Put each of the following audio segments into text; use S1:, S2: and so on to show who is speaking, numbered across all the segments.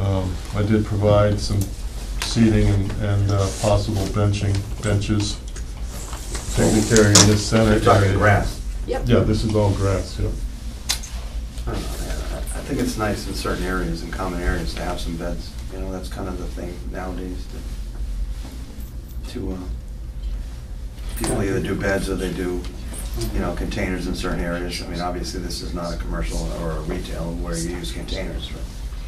S1: Um, I did provide some seating and, and uh, possible benching, benches, secretary in this
S2: They're
S1: senate
S2: talking
S1: area.
S2: grass.
S3: Yep.
S1: Yeah, this is all grass, yeah.
S4: I don't know, man. I I think it's nice in certain areas, in common areas, to have some beds. You know, that's kind of the thing nowadays to, to, uh, people either do beds or they do, you know, containers in certain areas. I mean, obviously, this is not a commercial or a retail where you use containers. but-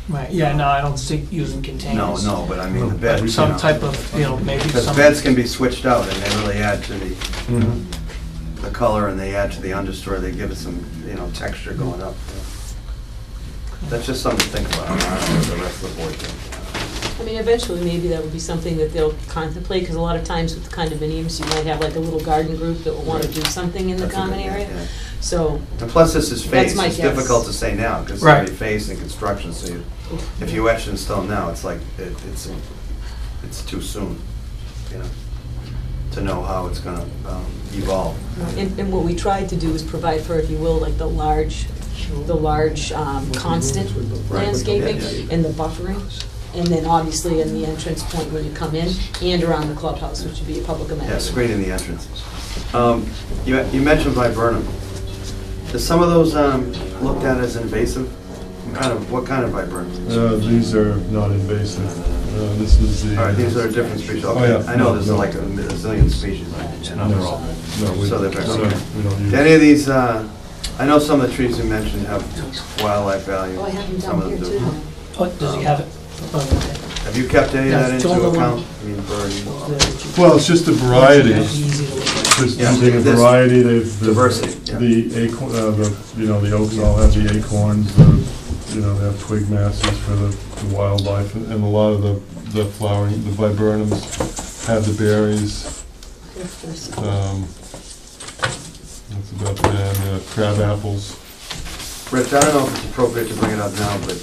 S5: Right, yeah, no, I don't see using
S4: No,
S5: containers.
S4: no, but I mean, the
S5: But
S4: bed. you
S5: Some
S4: know.
S5: type of, you know, maybe
S4: Because
S5: some.
S4: beds can be switched out and they really add to the,
S1: Mhm.
S4: the color and they add to the understory. They give it some, you know, texture going up. That's just something to think about. I don't know what The rest of the board thinks.
S3: I mean, eventually, maybe that would be something that they'll contemplate, because a lot of times with condominiums, you might have like a little garden group that will want to
S4: Right.
S3: do something in the
S4: That's a
S3: common
S4: good-
S3: area.
S4: yeah.
S3: So,
S4: And plus, this is
S3: That's
S4: phased,
S3: my
S4: it's difficult
S3: guess.
S4: to say now, because it's
S5: Right.
S4: already phased in construction, so you- if you etch in stone now, it's like, it- it's, it's too soon, you know, to know how it's gonna um, evolve.
S3: and, and what we tried to do is provide for, if you will, like the large, the large um, constant landscaping
S4: Yeah, yeah.
S3: and the buffering. And then obviously in the entrance point where you come in and around the clubhouse, which would be a public amenity.
S4: Yeah, screening the entrances. Um, You, you mentioned viburnum. Is some of those um, looked at as invasive? What kind of, what kind of viburnum?
S1: Uh, These are not invasive. Uh, This is the.
S4: All right, these are a different species,
S1: Oh,
S4: okay,
S1: yeah.
S4: I know
S1: No,
S4: there's
S1: no.
S4: like a zillion species, and
S1: No,
S4: they're all
S1: No, we,
S4: So
S1: no,
S4: they're very- okay.
S1: we don't use.
S4: Do any of these, uh, I know some of the trees you mentioned have wildlife value.
S3: Oh, I have them
S4: Some
S3: down
S4: of Um,
S3: here
S4: them
S3: too.
S4: do.
S5: Oh, does he have it? Oh,
S4: Have you kept any of that
S5: That's the
S4: into
S5: only one.
S4: account? I mean,
S5: okay.
S4: bird,
S5: The-
S1: Well, it's just a variety,
S5: Easy to look at.
S1: just
S4: Yeah,
S1: using a
S4: this-
S1: variety, they've. the-
S4: diversity, yeah.
S1: The acorn, uh, the, you know, the oaks all have the acorns, the, you know, they have twig masses for the the wildlife, and and a lot of the, the flowering, the viburnums have the berries. um, That's about that, and uh, crab apples.
S4: Rich, I don't know if it's appropriate to bring it up now, but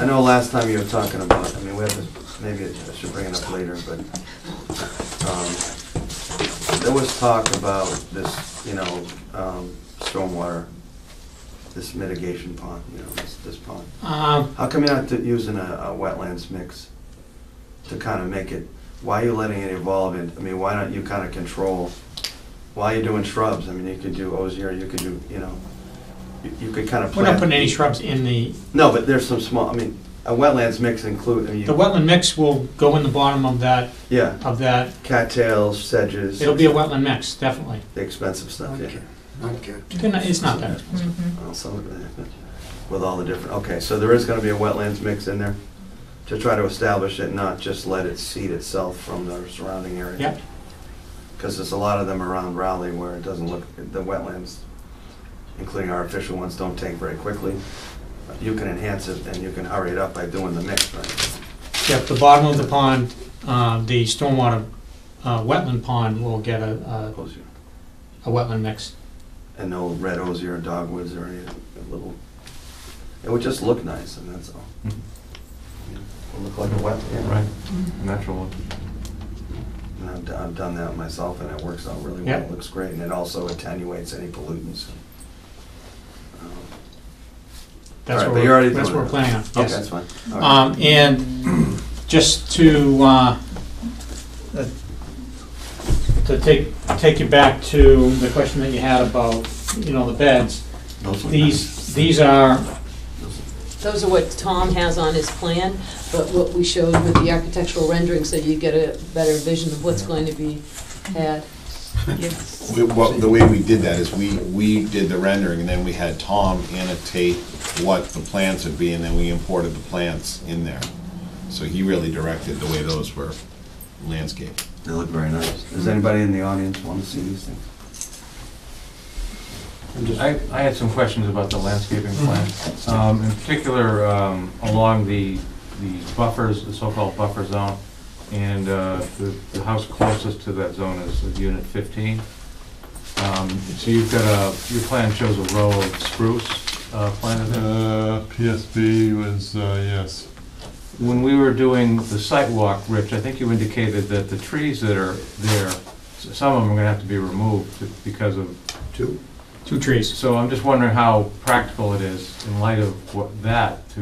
S4: I know last time you were talking about, I mean, we have this, maybe I should bring it up later, but, um, there was talk about this, you know, um, stormwater, this mitigation pond, you know, this, this pond.
S6: Uh,
S5: Um,
S4: How come you're not using a, a wetlands mix to kind of make it, why are you letting it evolve it? I mean, why don't you kind of control, why are you doing shrubs? I mean, you could do osier, you could do, you know, you- you could kind of
S6: We're
S4: plant.
S6: not putting any shrubs in the,
S4: No, but there's some small, I mean, a wetlands mix include, I mean,
S6: the
S4: you-
S6: wetland mix will go in the bottom of that,
S4: yeah,
S6: of that.
S4: cattails, sedges,
S6: It'll
S4: the
S6: be a wetland mix, definitely.
S4: expensive stuff, yeah.
S2: Not good.
S6: It's gonna- It's not that expensive.
S4: Well, some of it, but With all the different, okay, so there is gonna be a wetlands mix in there to try to establish it, not just let it seed itself from the surrounding area.
S6: Yep.
S4: Because there's a lot of them around Raleigh where it doesn't look, the wetlands, including our official ones, don't take very quickly. You can enhance it and you can hurry it up by doing the mix, right?
S6: Yep, the bottom of the pond, uh, the stormwater uh, wetland pond will get a, a- a wetland mix.
S4: And no red osier or dogwoods or any little, it would just look nice and that's all.
S2: Mhm.
S4: It'll look like a wetland.
S2: Right, natural one.
S4: And I've, d- I've done that myself, and it works out really well.
S6: Yeah.
S4: It looks great, and it also attenuates any pollutants. Um,
S6: That's
S4: All right,
S6: what
S4: but you're already
S6: we're, that's
S4: doing
S6: what we're
S4: it.
S6: planning on,
S4: Okay,
S6: yes.
S4: that's fine. All right.
S6: Um, and just to, uh, uh, to take, take you back to the question that you had about, you know, the beds.
S4: Those look
S6: These, these are,
S3: Those are what Tom has on his plan, but what we showed with the architectural rendering, so you get a better vision of what's going to be had.
S7: We- Well, the way we did that is we, we did the rendering, and then we had Tom annotate what the plants would be, and then we imported the plants in there. So he really directed the way those were landscaped.
S4: nice. They look very nice. Does anybody in the audience want to see these things?
S2: I, I had some questions about the landscaping plan, um, in particular, um, along the, the buffers, the so-called buffer zone. And, uh, the, the house closest to that zone is unit fifteen. Um, so you've got a, your plan shows a row of spruce, uh, planted there.
S1: Uh, PSB was, uh, yes.
S2: When we were doing the site walk, Rich, I think you indicated that the trees that are there, s- some of them are gonna have to be removed because of
S6: two trees.
S2: So I'm just wondering how practical it is in light of what, that, to